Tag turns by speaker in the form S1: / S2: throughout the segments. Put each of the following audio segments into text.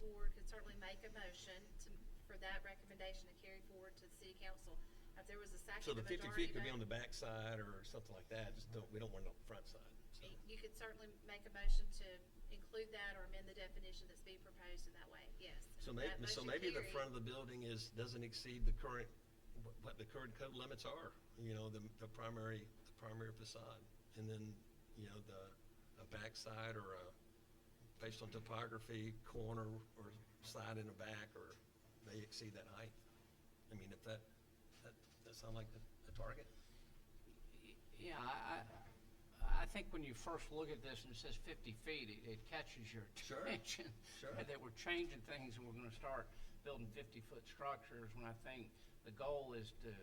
S1: board could certainly make a motion to, for that recommendation to carry forward to the city council. If there was a second,
S2: So
S1: a
S2: the
S1: majority
S2: fifty
S1: vote.
S2: feet could be on the back side or something like that, just don't, we don't want it on the front side, so.
S1: You- You could certainly make a motion to include that or amend the definition that's being proposed in that way, yes.
S2: So may,
S1: That motion
S2: so maybe the
S1: carried.
S2: front of the building is, doesn't exceed the current, what- what the current code limits are, you know, the, the primary, the primary facade. And then, you know, the, a backside or a, based on topography, corner or side in the back or they exceed that height. I mean, if that, that, that sound like a, a target?
S3: Yeah, I, I, I think when you first look at this and it says fifty feet, it, it catches your
S2: Sure,
S3: attention.
S2: sure.
S3: That we're changing things and we're gonna start building fifty-foot structures when I think the goal is to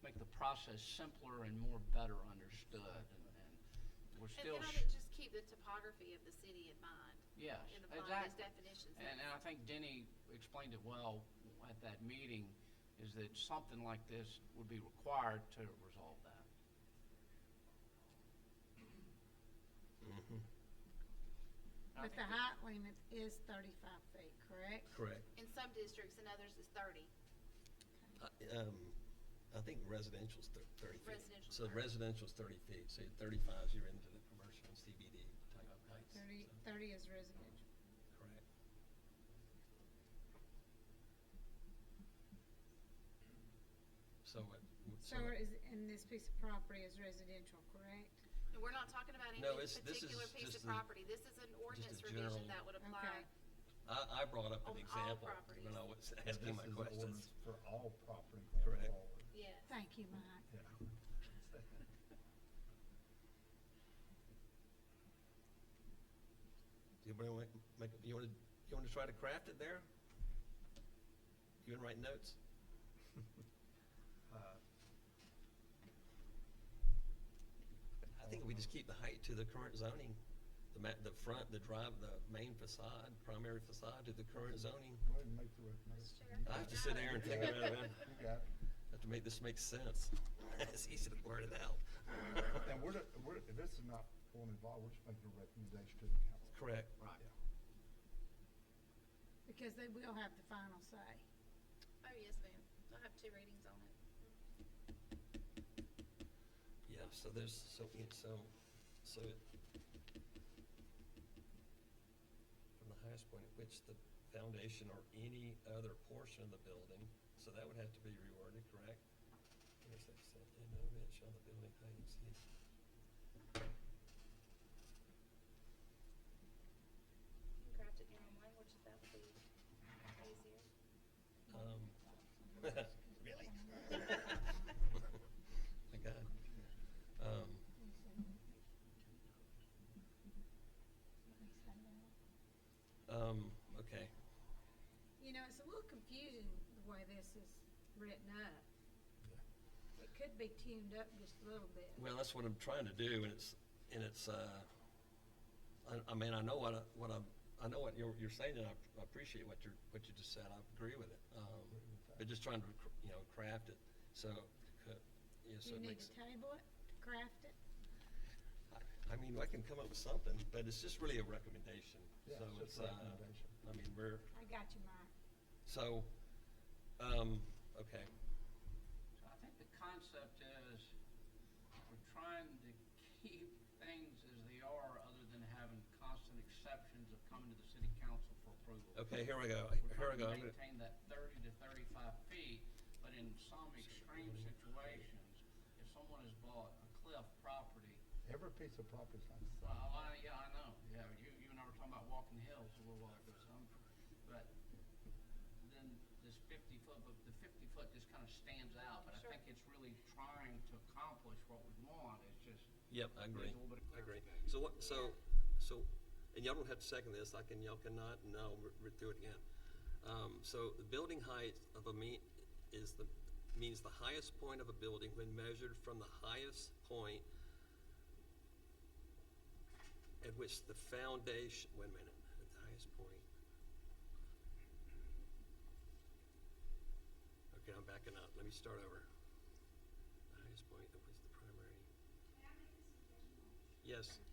S3: make the process simpler and more better understood and, and we're
S1: And
S3: still.
S1: can I
S3: sh-
S1: just keep the topography of the city in mind?
S3: Yes,
S1: In the
S3: exactly.
S1: these definitions.
S3: And, uh, and I think Denny explained it well at that meeting, is that something like this would be required to resolve that.
S2: Mm-hmm,
S3: And I
S4: But
S3: think that-
S4: the height limit is thirty-five feet, correct?
S2: Correct.
S1: In some districts, in others it's thirty.
S2: I- Um, I think residential's thir- thirty feet.
S1: Residential's
S2: So
S1: 30.
S2: residential's thirty feet, so you're thirty-five, you're into the commercial and CBD type of heights.
S4: Thirty,
S2: so,
S4: thirty is residential.
S2: Correct. So what? w-
S4: So is, and this piece of property is residential, correct?
S1: And we're not talking about any
S2: No, it's- this
S1: particular
S2: is
S1: piece
S2: just
S1: of
S2: a-
S1: property. This is an ordinance
S2: general-
S1: revision that would apply.
S4: Okay.
S2: I, I brought up
S1: On all
S2: an example when
S1: properties.
S2: I was
S5: This
S2: asking my
S5: is an
S2: questions.
S5: ordinance For all property.
S2: Correct.
S5: involved,
S1: Yes.
S4: Thank you, Mike.
S5: yeah.
S2: You wanna make, you wanna, you wanna try to craft it there? You wanna write notes?
S5: Uh,
S2: I think we just keep the height to the current zoning, the ma- the front, the drive, the main facade, primary facade to the current zoning.
S5: Go ahead and make the recommendation. You
S2: I
S5: got
S2: have to sit there and
S5: it.
S2: figure it out, man.
S5: You got it.
S2: Have to make this make sense. It's easy to blurt it out.
S5: And we're, not- we're, this is not going involved, we're just making a recommendation to the council.
S2: Correct.
S3: Right.
S5: Yeah.
S4: Because they will have the final say.
S1: Oh, yes, ma'am. I'll have two readings on it.
S2: Yeah, so there's, so, it- so, so it. From the highest point at which the foundation or any other portion of the building, so that would have to be reworded, correct? Intersection, and no event shall the building height exceed.
S1: You can craft it in your own language if that would be easier.
S2: Um, really? Oh My God. Um, um, okay,
S4: You know, it's a little confusing the way this is written up. It could be tuned up just a little bit.
S2: well, that's what I'm trying to do, and it's, and it's, uh, I, I mean, I know what, I- what I'm, I know what you're, you're saying, and I I appreciate what you're, what you just said, I agree with it. Um, but just trying to, cr- you know, craft it, so, uh, yeah,
S4: Do
S2: so
S4: you
S2: it
S4: need
S2: makes.
S4: to table it, to craft it?
S2: I- I mean, I can come up with something, but it's just really a recommendation,
S5: Yeah,
S2: so
S5: it's
S2: it's,
S5: just
S2: uh,
S5: a recommendation.
S2: I mean, we're,
S4: I got you, Mike.
S2: so, um, okay,
S3: So I think the concept is, we're trying to keep things as they are, other than having constant exceptions of coming to the city council for approval.
S2: okay, here we go,
S3: We're
S2: here we
S3: trying
S2: go,
S3: to
S2: I'm gonna,
S3: maintain that thirty to thirty-five feet, but in some extreme situations, if someone has bought a cliff property,
S5: Every piece of property is like,
S3: well, I, yeah, I know, yeah, you, you and I were talking about walking hills a little while ago, so I'm, but then this fifty foot, but the fifty foot just kind of stands out, but I
S1: Sure.
S3: think it's really trying to accomplish what we want, it's just.
S2: yep, I agree,
S3: needs a little bit of
S2: I agree.
S3: clarification.
S2: So what, so, so, and y'all don't have to second this, I can, y'all cannot, no, we're, we're through it again. Um, so the building height of a mean, is the, means the highest point of a building when measured from the highest point at which the foundation, wait a minute, at the highest point. Okay, I'm backing up, let me start over. The highest point at which the primary. Yes,